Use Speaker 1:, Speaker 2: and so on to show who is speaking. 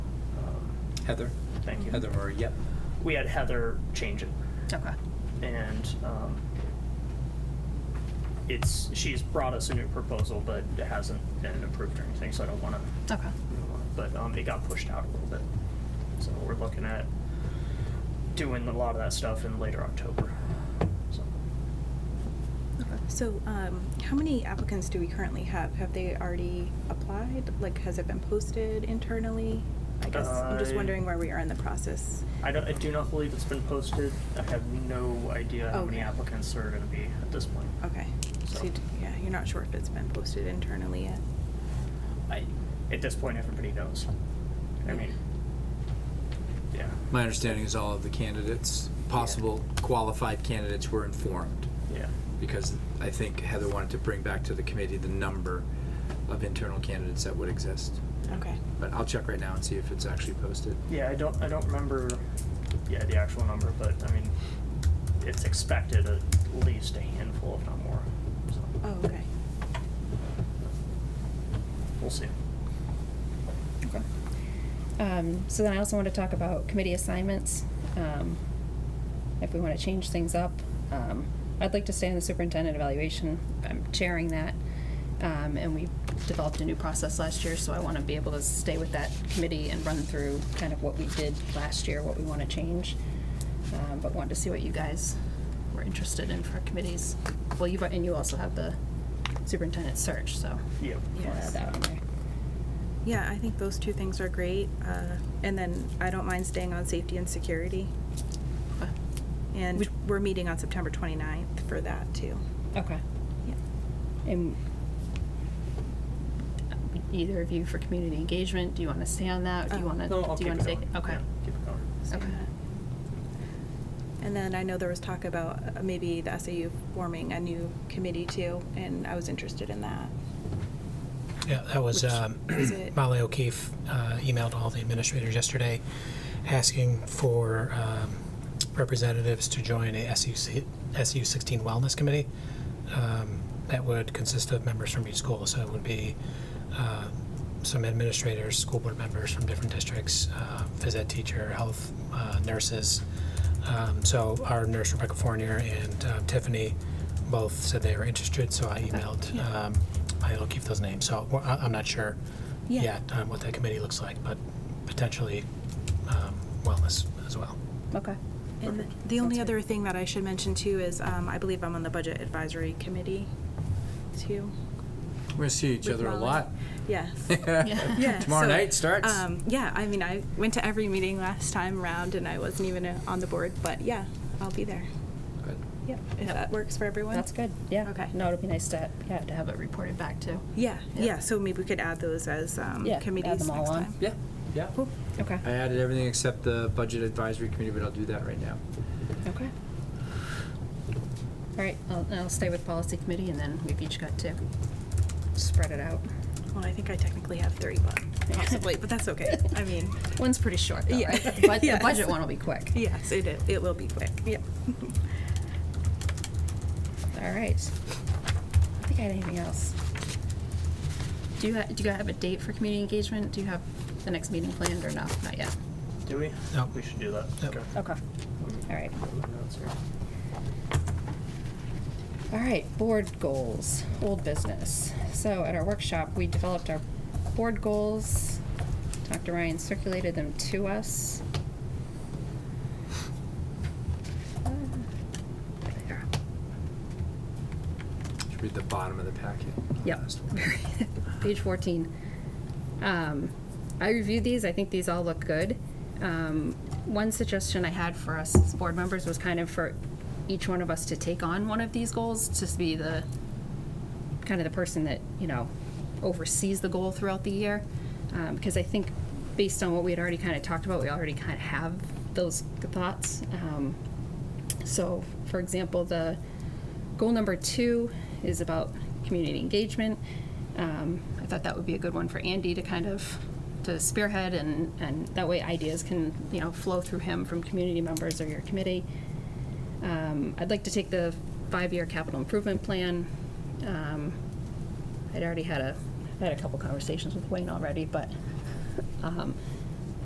Speaker 1: Heather?
Speaker 2: Um, Thank you.
Speaker 1: Heather Murray, yep.
Speaker 2: We had Heather change it,
Speaker 3: Okay.
Speaker 2: and um, it's she's brought us a new proposal, but it hasn't been approved or anything. So I don't want to
Speaker 3: Okay.
Speaker 2: but um, it got pushed out a little bit. So we're looking at doing a lot of that stuff in later October. So
Speaker 4: So, um, how many applicants do we currently have? Have they already applied? Like, has it been posted internally? I guess I'm just
Speaker 2: I-
Speaker 4: wondering where we are in the process.
Speaker 2: I, don't, I do not believe it's been posted. I have no idea how many
Speaker 4: Okay.
Speaker 2: applicants are going to be at this point.
Speaker 4: Okay, so,
Speaker 2: So-
Speaker 4: you d- yeah, you're not sure if it's been posted internally yet?
Speaker 2: I, at this point, everybody knows. I mean, yeah.
Speaker 1: My understanding is all of the candidates, possible qualified candidates were informed,
Speaker 2: Yeah.
Speaker 1: because I think Heather wanted to bring back to the committee the number of internal candidates that would exist.
Speaker 4: Okay.
Speaker 1: But I'll check right now and see if it's actually posted.
Speaker 2: Yeah, I don't, I don't remember, yeah, the actual number, but I mean, it's expected at least a handful, if not more. So
Speaker 4: Oh, okay.
Speaker 2: we'll see.
Speaker 3: Okay.
Speaker 5: Um, so then I also want to talk about committee assignments. Um, if we want to change things up, um, I'd like to stay in the superintendent evaluation. I'm chairing that. Um, and we developed a new process last year, so I want to be able to stay with that committee and run through kind of what we did last year, what we want to change. Um, but wanted to see what you guys were interested in for committees. Well, you've, and you also have the superintendent search, so.
Speaker 2: Yep.
Speaker 5: We'll add
Speaker 4: Yes.
Speaker 5: that on there.
Speaker 4: Yeah, I think those two things are great. Uh, and then I don't mind staying on safety and security. And
Speaker 5: Would-
Speaker 4: we're meeting on September 29th for that, too.
Speaker 5: Okay.
Speaker 4: Yeah.
Speaker 5: And either of you for community engagement, do you want to stay on that? Do you
Speaker 4: Uh,
Speaker 5: want to,
Speaker 2: No, I'll
Speaker 5: do you
Speaker 2: keep
Speaker 5: want
Speaker 2: it
Speaker 5: to take?
Speaker 2: going.
Speaker 5: Okay.
Speaker 2: Yeah, Keep it going.
Speaker 4: So,
Speaker 5: Okay.
Speaker 4: yeah. And then I know there was talk about uh, maybe the SAU forming a new committee too, and I was interested in that.
Speaker 6: Yeah, that was
Speaker 4: Which
Speaker 6: um,
Speaker 4: is it?
Speaker 6: Molly O'Keefe uh, emailed all the administrators yesterday asking for um, representatives to join a SU, SU 16 Wellness Committee um, that would consist of members from each school. So it would be uh, some administrators, school board members from different districts, uh, phys ed teacher, health, uh, nurses. Um, so our nurse Rebecca Fournier and uh, Tiffany both said they were interested. So I emailed. Um, I'll keep those names. So we're- I- I'm not sure
Speaker 4: Yeah.
Speaker 6: yet um, what that committee looks like, but potentially um, wellness as well.
Speaker 5: Okay.
Speaker 4: And the only other thing that I should mention too is, um, I believe I'm on the Budget Advisory Committee too.
Speaker 1: We're gonna see each
Speaker 4: with
Speaker 1: other a
Speaker 4: Molly.
Speaker 1: lot.
Speaker 4: Yes.
Speaker 1: Yeah.
Speaker 4: Yeah,
Speaker 1: Tomorrow
Speaker 4: so,
Speaker 1: night starts.
Speaker 4: Um, yeah, I mean, I went to every meeting last time around and I wasn't even uh, on the board, but yeah, I'll be there.
Speaker 1: Good.
Speaker 4: Yep, if that works for everyone.
Speaker 5: That's good. Yeah.
Speaker 4: Okay.
Speaker 5: No, it'd be nice to, yeah, to have it reported back too.
Speaker 4: Yeah,
Speaker 5: Yeah.
Speaker 4: yeah, so maybe we could add those as, um,
Speaker 5: Yeah, add
Speaker 4: committees
Speaker 5: them all
Speaker 4: next
Speaker 5: on.
Speaker 4: time.
Speaker 1: Yeah, yeah.
Speaker 4: Cool.
Speaker 5: Okay.
Speaker 1: I added everything except the budget advisory committee, but I'll do that right now.
Speaker 5: Okay. All right, I'll, I'll stay with policy committee and then we've each got to spread it out.
Speaker 4: Well, I think I technically have three, but possibly, but that's okay. I mean,
Speaker 5: One's pretty short though,
Speaker 4: Yeah.
Speaker 5: right? The bud- The
Speaker 4: Yes.
Speaker 5: budget one will be quick.
Speaker 4: yes, it, i- it will be quick. Yep.
Speaker 5: All right. I think I had anything else. Do you, ha- do you have a date for community engagement? Do you have the next meeting planned or no? Not yet.
Speaker 2: Do we?
Speaker 6: No.
Speaker 2: We should do that.
Speaker 6: No.
Speaker 2: Okay.
Speaker 5: Okay. All right.
Speaker 2: That's here.
Speaker 5: All right, board goals, old business. So at our workshop, we developed our board goals. Dr. Ryan circulated them to us. Uh, there they are.
Speaker 1: Should read the bottom of the packet.
Speaker 5: Yep.
Speaker 1: Last one.
Speaker 5: Page 14. Um, I reviewed these. I think these all look good. Um, one suggestion I had for us as board members was kind of for each one of us to take on one of these goals, just be the kind of the person that, you know, oversees the goal throughout the year. Um, because I think based on what we had already kind of talked about, we already kind of have those thoughts. Um, so, for example, the goal number two is about community engagement. Um, I thought that would be a good one for Andy to kind of to spearhead, and and that way ideas can you know flow through him from community members or your committee. Um, I'd like to take the five-year capital improvement plan. Um, I'd already had a I had a couple conversations with Wayne already, but um,